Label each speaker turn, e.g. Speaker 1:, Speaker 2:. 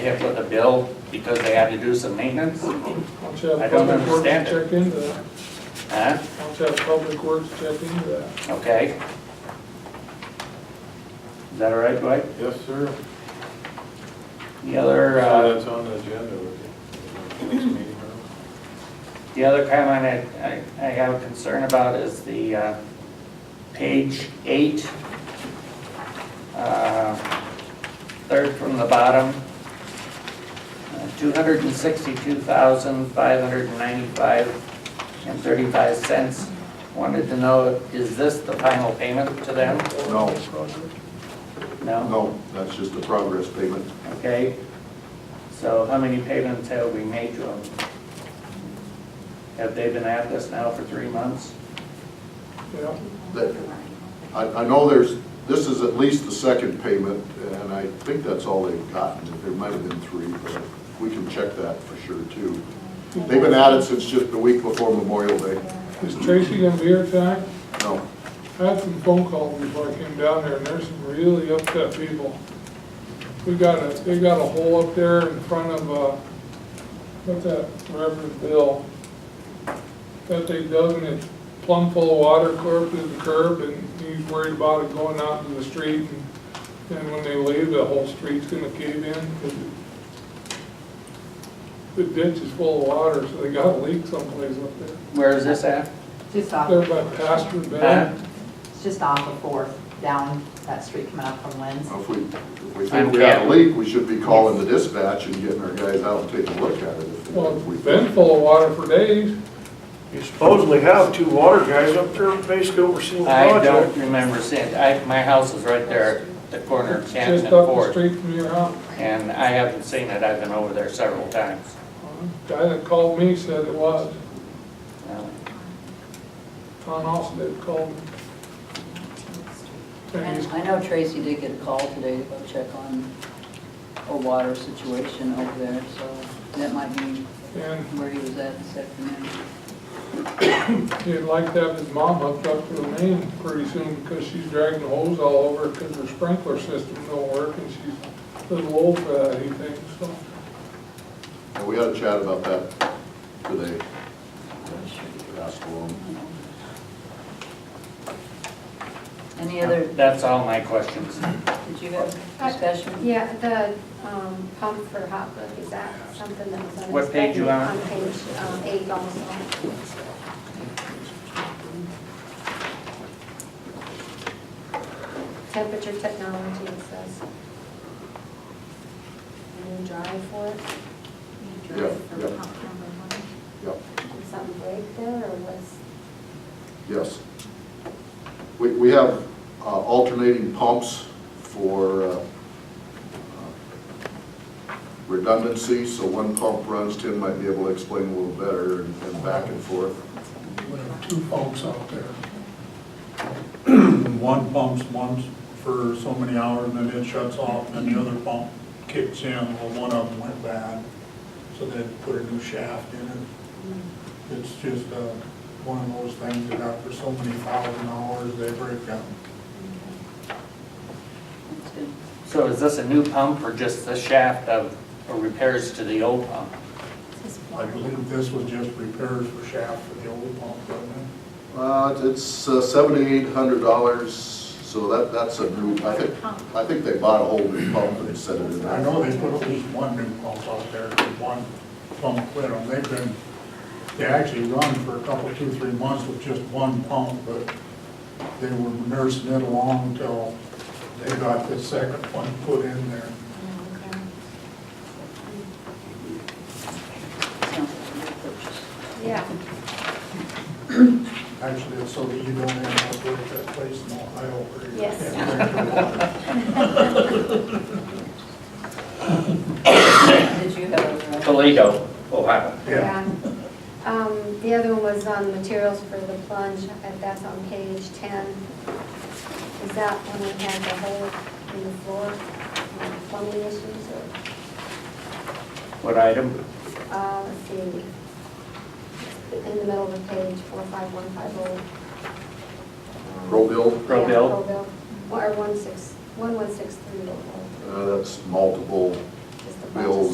Speaker 1: They have put the bill because they had to do some maintenance,
Speaker 2: Don't you have
Speaker 1: I don't
Speaker 2: public works
Speaker 1: understand it.
Speaker 2: check into that?
Speaker 1: huh?
Speaker 2: Don't you have public works check into that?
Speaker 1: Okay. Is that all right, Dwight?
Speaker 3: Yes, sir.
Speaker 1: The other,
Speaker 3: So
Speaker 1: uh,
Speaker 3: That's on the agenda with you. Next meeting, huh?
Speaker 1: the other comment I, I, I have a concern about is the, uh, page eight. uh, Third from the bottom. Uh, Two hundred and sixty-two thousand, five hundred and ninety-five and thirty-five cents. Wanted to know, is this the final payment to them?
Speaker 4: No,
Speaker 1: No?
Speaker 4: no, that's just a progress payment.
Speaker 1: Okay, so how many payments have we made to them? Have they been at this now for three months?
Speaker 2: Yeah,
Speaker 4: That- I, I know there's, this is at least the second payment, and I think that's all they've gotten. There might have been three, but we can check that for sure, too. They've been at it since just the week before Memorial Day.
Speaker 2: is Tracy gonna be here tonight?
Speaker 4: No,
Speaker 2: I had some phone calls before I came down there, and there's some really upset people. We got a, they got a hole up there in front of, uh, what's that, Reverend Bill? That they dug and it's plumb full of water, clear up to the curb, and he's worried about it going out to the street. and- And when they leave, the whole street's gonna cave in, 'cause it- the ditch is full of water, so they got a leak someplace up there.
Speaker 1: Where is this at?
Speaker 5: Just off,
Speaker 2: There by Pastor Bell.
Speaker 5: it's just off of Fourth, down that street coming up from Lynn's.
Speaker 4: if we, if we think we got a leak, we should be calling the dispatch and getting our guys out and taking a look at it. if-
Speaker 2: Well,
Speaker 4: if we-
Speaker 2: it's been full of water for days.
Speaker 6: You supposedly have two water guys up there basically overseeing the
Speaker 1: I don't
Speaker 6: project.
Speaker 1: remember seeing, I, my house is right there, at the corner of
Speaker 2: It's
Speaker 1: Canton
Speaker 2: Just
Speaker 1: and
Speaker 2: up the
Speaker 1: Ford,
Speaker 2: street from your house.
Speaker 1: and I haven't seen it, I've been over there several times.
Speaker 2: Guy that called me said it was.
Speaker 1: Uh,
Speaker 2: Tom Austin called me. And
Speaker 7: And
Speaker 2: he's-
Speaker 7: I know Tracy did get a call today to go check on a water situation over there, so that might be
Speaker 2: And
Speaker 7: where he was at this afternoon.
Speaker 2: he'd like to have his mom hooked up to the main pretty soon because she's dragging the hose all over because her sprinkler system don't work and she's a little old for that, he thinks, so.
Speaker 4: And we had a chat about that today. Asked along.
Speaker 7: Any other,
Speaker 1: That's all my questions.
Speaker 7: did you have discussion?
Speaker 8: Yeah, the um, pump for hot book, is that something that was unexpected?
Speaker 1: What page you on?
Speaker 8: On page um, eight also. Temperature technology, it says. A new drive for it.
Speaker 4: drive Yeah, for yeah. pump Yep.
Speaker 8: Did something break there, or was?
Speaker 4: Yes. We, we have uh, alternating pumps for uh, uh, redundancy, so one pump runs, Tim might be able to explain a little better and and back and forth.
Speaker 9: We have two pumps out there. One pumps once for so many hours, and then it shuts off, and then the other pump kicks in, well, one of them went bad, so they had to put a new shaft in it. It's just, uh, one of those things that after so many thousand hours, they break down.
Speaker 7: That's good.
Speaker 1: So is this a new pump or just the shaft of or repairs to the old pump?
Speaker 9: I believe this was just repairs for shaft for the old pump, wasn't it?
Speaker 4: Uh, It's seventy-eight hundred dollars, so that, that's a new, I think, I think they bought a whole new pump and they set it in.
Speaker 9: I know they put at least one new pump out there, and one pump quit on, they've been, they actually run for a couple, two, three months with just one pump, but they were nursing it along until they got the second one put in there.
Speaker 7: Sounds like a good purchase.
Speaker 8: Yeah.
Speaker 9: Actually, it's so that you don't end up with that place in Ohio where you
Speaker 8: Yes.
Speaker 9: can't drink your water.
Speaker 7: Did you have a,
Speaker 1: Toledo, Ohio.
Speaker 9: Yeah.
Speaker 8: Um, The other one was on materials for the plunge, and that's on page 10. Is that when we had the hole in the floor, um, plumbing issues, or,
Speaker 1: What item?
Speaker 8: uh, let's see, in the middle of the page, 45150. Um,
Speaker 4: Pro bill,
Speaker 1: Pro
Speaker 8: yeah,
Speaker 1: bill.
Speaker 8: Pro bill, or 16 1163, the hole,
Speaker 4: uh, that's multiple
Speaker 8: just the
Speaker 4: bills